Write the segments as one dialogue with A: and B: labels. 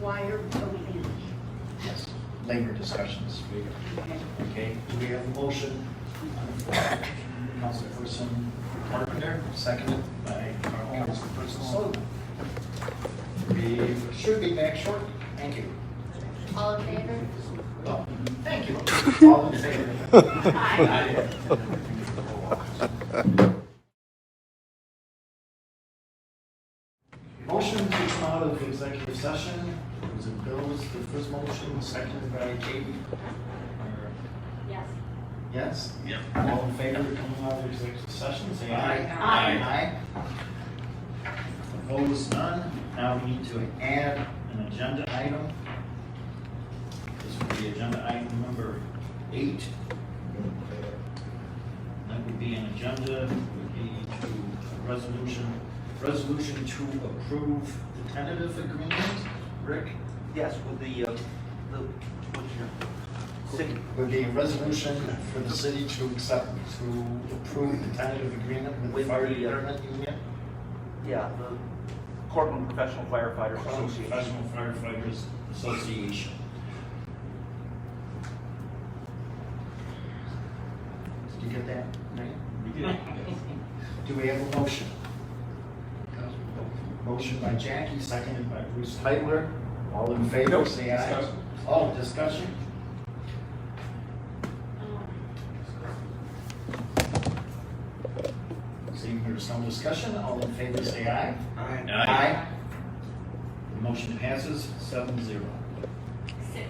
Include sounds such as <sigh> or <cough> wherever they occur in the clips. A: why are we voting?
B: Yes, labor discussions,
A: Okay.
B: okay? Do we have a motion? Councilperson Carpenter, seconded by our councilperson Sullivan. We should be back short. Thank you.
C: All in favor?
B: Oh, Thank you. All in favor?
A: Aye.
B: Motion to come out of the executive session, It was it Bill's, the first motion, seconded by Katie? Or-
C: Yes.
B: Yes? Yep. All in favor of coming out of the executive session, say aye.
A: Aye.
B: Aye. Opposed, none. Now we need to add an agenda item. This would be agenda item number eight. That would be an agenda, would be to a resolution, resolution to approve the tentative agreement. Rick?
D: Yes, with the, uh, the, what's your, city,
B: Would be a resolution for the city to accept, to approve the tentative agreement with
D: With
B: the fire
D: the, uh,
B: department union.
D: yeah, the Cortland Professional Firefighters Association.
B: Professional Firefighters Association. Did you get that? Do we have a motion? Motion by Jackie, seconded by Bruce Heitler. All in favor,
D: Nope.
B: say aye.
D: Discussion.
B: Oh, discussion? Seeing there's no discussion, all in favor, say aye. Aye. Aye. The motion passes seven zero.
C: Six.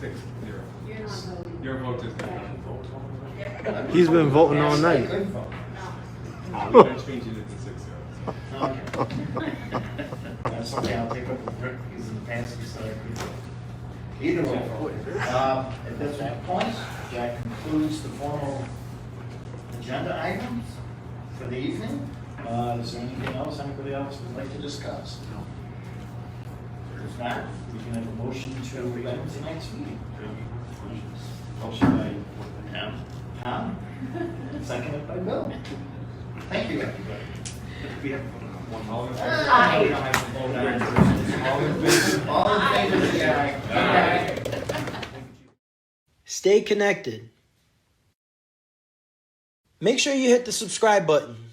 E: Six, zero.
A: You're not voting.
E: Your vote is not
F: He's been voting all
B: Yes, I
F: night.
B: could vote.
A: <laughs>
E: counted. We're not changing it to six, zero.
B: Okay.
F: <laughs>
B: That's okay, I'll take up the brick, because in the past, you said I could vote. Either way, um, at this point, that concludes the formal agenda items for the evening. Uh, is there anything else anybody else would like to discuss? If not, we can have a motion to adjourn tonight's meeting. Motion by Tom. Tom, seconded by Bill. Thank you, everybody.
E: All in favor?
A: Aye.
B: All in favor? All in favor, say aye. Aye.
G: Stay connected. Make sure you hit the subscribe button.